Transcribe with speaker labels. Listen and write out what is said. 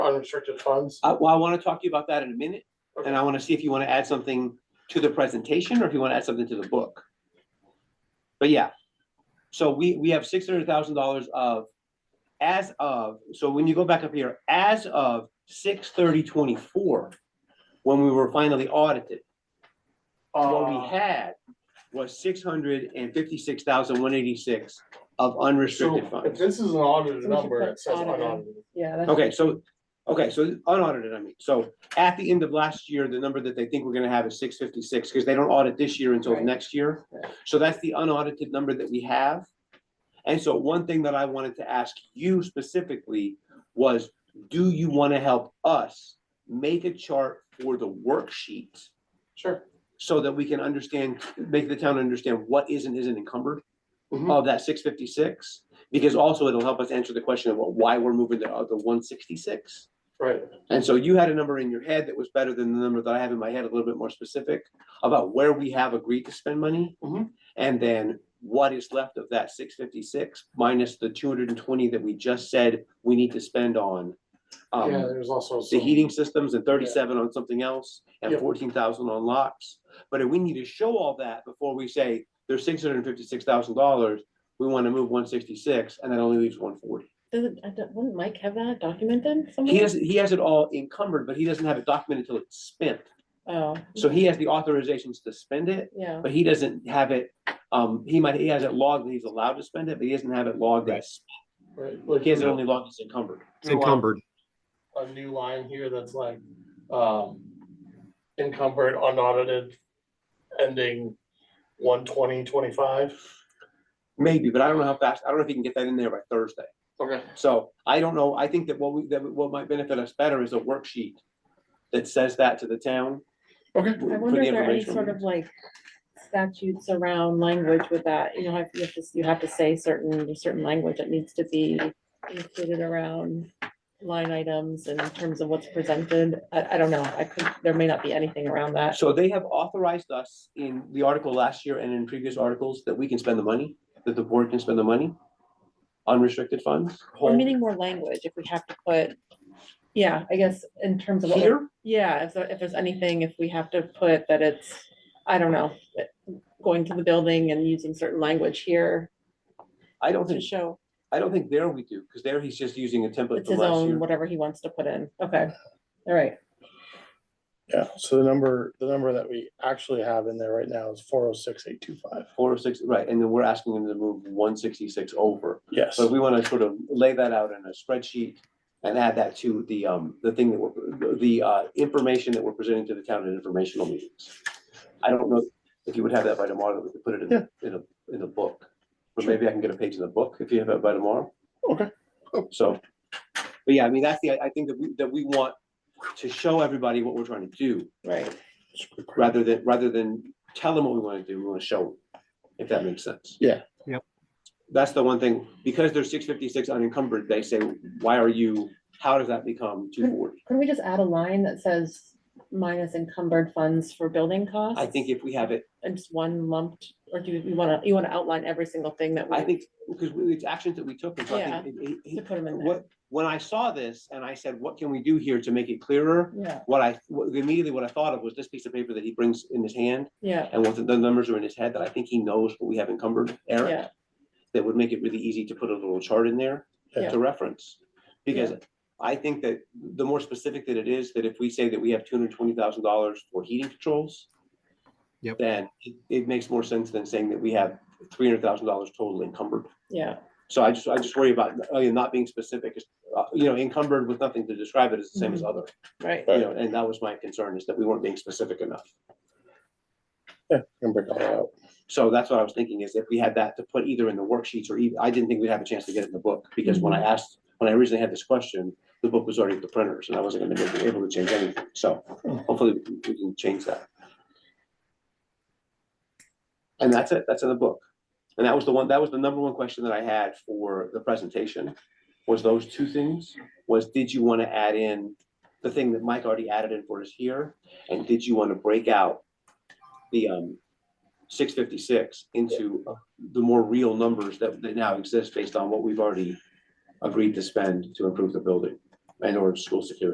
Speaker 1: unrestricted funds?
Speaker 2: I, Uh, well, I want to talk to you about that in a minute, and I want to see if you want to add something to the presentation or if you want to add something to the book. But yeah, so we, we have six hundred thousand dollars of, as of, so when you go back up here, as of six thirty twenty-four, when we were finally audited, what we
Speaker 1: Uh,
Speaker 2: had was six hundred and fifty-six thousand one eighty-six of unrestricted
Speaker 1: So if
Speaker 2: funds.
Speaker 1: this is an audited
Speaker 3: So we should
Speaker 1: number,
Speaker 3: put
Speaker 1: it says
Speaker 3: audited.
Speaker 1: unaudited.
Speaker 3: Yeah, that's.
Speaker 2: Okay, so, okay, so unaudited, I mean, so at the end of last year, the number that they think we're gonna have is six fifty-six, because they don't audit this year until
Speaker 3: Right.
Speaker 2: next year.
Speaker 3: Right.
Speaker 2: So that's the unaudited number that we have. And so one thing that I wanted to ask you specifically was, do you wanna help us make a chart for the worksheet?
Speaker 1: Sure.
Speaker 2: So that we can understand, make the town understand what is and isn't encumbered?
Speaker 1: Mhm.
Speaker 2: of that six fifty-six, because also it'll help us answer the question of well, why we're moving the other one sixty-six.
Speaker 1: Right,
Speaker 2: And so you had a number in your head that was better than the number that I have in my head, a little bit more specific about where we have agreed to spend money.
Speaker 1: Mhm.
Speaker 2: And then what is left of that six fifty-six minus the two hundred and twenty that we just said we need to spend on. um,
Speaker 1: yeah, there's also.
Speaker 2: the
Speaker 1: some-
Speaker 2: heating systems and thirty-seven on something else and
Speaker 1: Yep.
Speaker 2: fourteen thousand on locks. But if we need to show all that before we say there's six hundred and fifty-six thousand dollars, we want to move one sixty-six and that only leaves one forty.
Speaker 3: Doesn't, I don't, wouldn't Mike have that documented
Speaker 2: He
Speaker 3: somewhere?
Speaker 2: has, he has it all encumbered, but he doesn't have it documented until it's spent.
Speaker 3: Oh,
Speaker 2: So he has the authorizations to spend it,
Speaker 3: yeah,
Speaker 2: but he doesn't have it, um, he might, he has it logged that he's allowed to spend it, but he doesn't have it logged that it's-
Speaker 1: Right, like
Speaker 2: he has it
Speaker 1: a-
Speaker 2: only logged as encumbered.
Speaker 4: It's encumbered.
Speaker 1: a new line here that's like, um, encumbered, unaudited, ending one twenty twenty-five.
Speaker 2: Maybe, but I don't know how fast, I don't know if he can get that in there by Thursday.
Speaker 1: Okay.
Speaker 2: So I don't know, I think that what we, that what might benefit us better is a worksheet that says that to the town.
Speaker 1: Okay.
Speaker 2: for
Speaker 3: I
Speaker 2: the
Speaker 3: wonder if there are any
Speaker 2: information.
Speaker 3: sort of like statutes around language with that, you know, if you have to, you have to say certain, there's certain language that needs to be included around line items in terms of what's presented, I, I don't know, I could, there may not be anything around that.
Speaker 2: So they have authorized us in the article last year and in previous articles that we can spend the money, that the board can spend the money. Unrestricted funds.
Speaker 3: We're needing more language if we have to put, yeah, I guess in terms of what we're
Speaker 2: Here,
Speaker 3: Yeah, if, there- if there's anything, if we have to put that it's, I don't know, that going to the building and using certain language here
Speaker 2: I don't
Speaker 3: to
Speaker 2: think,
Speaker 3: show
Speaker 2: I don't think there we do, because there he's just using a template
Speaker 3: it's
Speaker 2: from
Speaker 3: his
Speaker 2: last
Speaker 3: own,
Speaker 2: year.
Speaker 3: whatever he wants to put in. Okay, all right.
Speaker 5: Yeah, so the number, the number that we actually have in there right now is four oh six eight two five.
Speaker 2: Four or six, right, and then we're asking him to move one sixty-six over.
Speaker 5: Yes,
Speaker 2: So we want to sort of lay that out in a spreadsheet and add that to the, um, the thing that we're, the, uh, information that we're presenting to the town in informational meetings. I don't know if you would have that by tomorrow, that we could put it in, the- in a, in a book. But maybe I can get a page in the book if you have it by tomorrow.
Speaker 5: Okay.
Speaker 2: So, but yeah, I mean, that's the, I think that we, that we want to show everybody what we're trying to do,
Speaker 3: Right.
Speaker 2: rather than, rather than tell them what we want to do, we want to show them, if that makes sense.
Speaker 5: Yeah.
Speaker 4: Yep.
Speaker 2: That's the one thing, because there's six fifty-six unencumbered, they say, why are you, how does that become two forty?
Speaker 3: Couldn't we just add a line that says minus encumbered funds for building costs?
Speaker 2: I think if we have it,
Speaker 3: And just one lumped, or do you wanna, you wanna outline every single thing that we?
Speaker 2: I think, because it's actions that we took, and so I think, it-
Speaker 3: To
Speaker 2: it-
Speaker 3: put them in there.
Speaker 2: what, when I saw this and I said, what can we do here to make it clearer?
Speaker 3: Yeah,
Speaker 2: What I, what- immediately what I thought of was this piece of paper that he brings in his hand,
Speaker 3: yeah,
Speaker 2: and what the the numbers are in his head, that I think he knows what we have encumbered, Eric.
Speaker 3: yeah,
Speaker 2: that would make it really easy to put a little chart in there
Speaker 5: Yeah.
Speaker 2: to reference. Because I think that the more specific that it is, that if we say that we have two hundred twenty thousand dollars for heating controls.
Speaker 4: Yep.
Speaker 2: Then it, it makes more sense than saying that we have three hundred thousand dollars total encumbered.
Speaker 3: yeah,
Speaker 2: So I just, I just worry about, uh, you know, not being specific, is, uh, you know, encumbered with nothing to describe it is the same as other.
Speaker 3: right.
Speaker 2: You know, and that was my concern is that we weren't being specific enough.
Speaker 5: can break all that out.
Speaker 2: So that's what I was thinking is if we had that to put either in the worksheets or even, I didn't think we'd have a chance to get it in the book. Because when I asked, when I originally had this question, the book was already at the printers and I wasn't gonna be able to change anything. So hopefully we can- we can change that. And that's it, that's in the book. And that was the one, that was the number one question that I had for the presentation, was those two things. Was did you wanna add in the thing that Mike already added in for us here? And did you wanna break out the, um, six fifty-six into the more real numbers that, that now exist based on what we've already agreed to spend to improve the building. I know we're in school security.